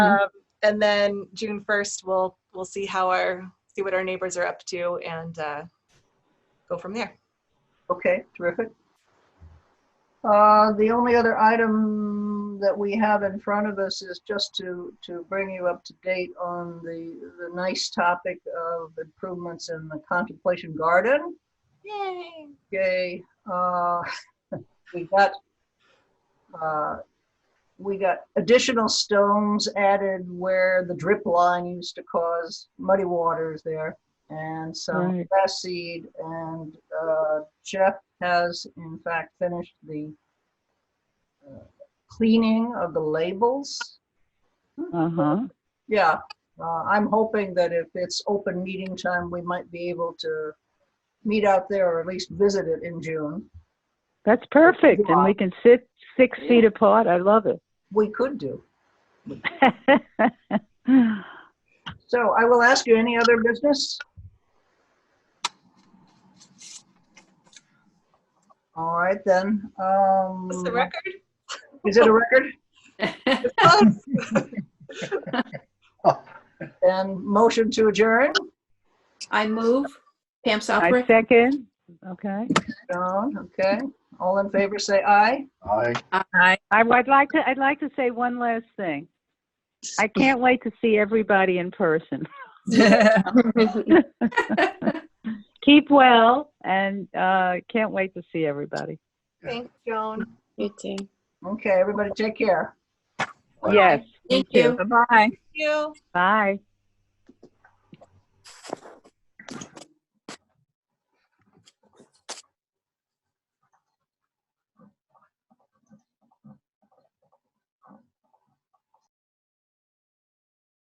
Um, and then June first, we'll, we'll see how our, see what our neighbors are up to and, uh, go from there. Okay, terrific. Uh, The only other item that we have in front of us is just to, to bring you up to date on the, the nice topic of improvements in the contemplation garden. Yay. Yay. Uh, We got, uh, we got additional stones added where the drip line used to cause muddy waters there. And some Right. grass seed. And uh, Jeff has in fact finished the uh, cleaning of the labels. Uh-huh. Yeah, uh, I'm hoping that if it's open meeting time, we might be able to meet out there or at least visit it in June. That's perfect. And we can sit six feet apart. I love it. We could do. So I will ask you any other business? All right then. um, That's the record. Is it a record? It's close. And motion to adjourn? I move. Pam I Southwick? second. Okay. John, okay. All in favor, say aye. Aye. I would like to, I'd like to say one last thing. I can't wait to see everybody in person. Keep well and uh, can't wait to see everybody. Thanks, Joan. You too. Okay, everybody take care. Yes. Thank you. Thank you. Bye.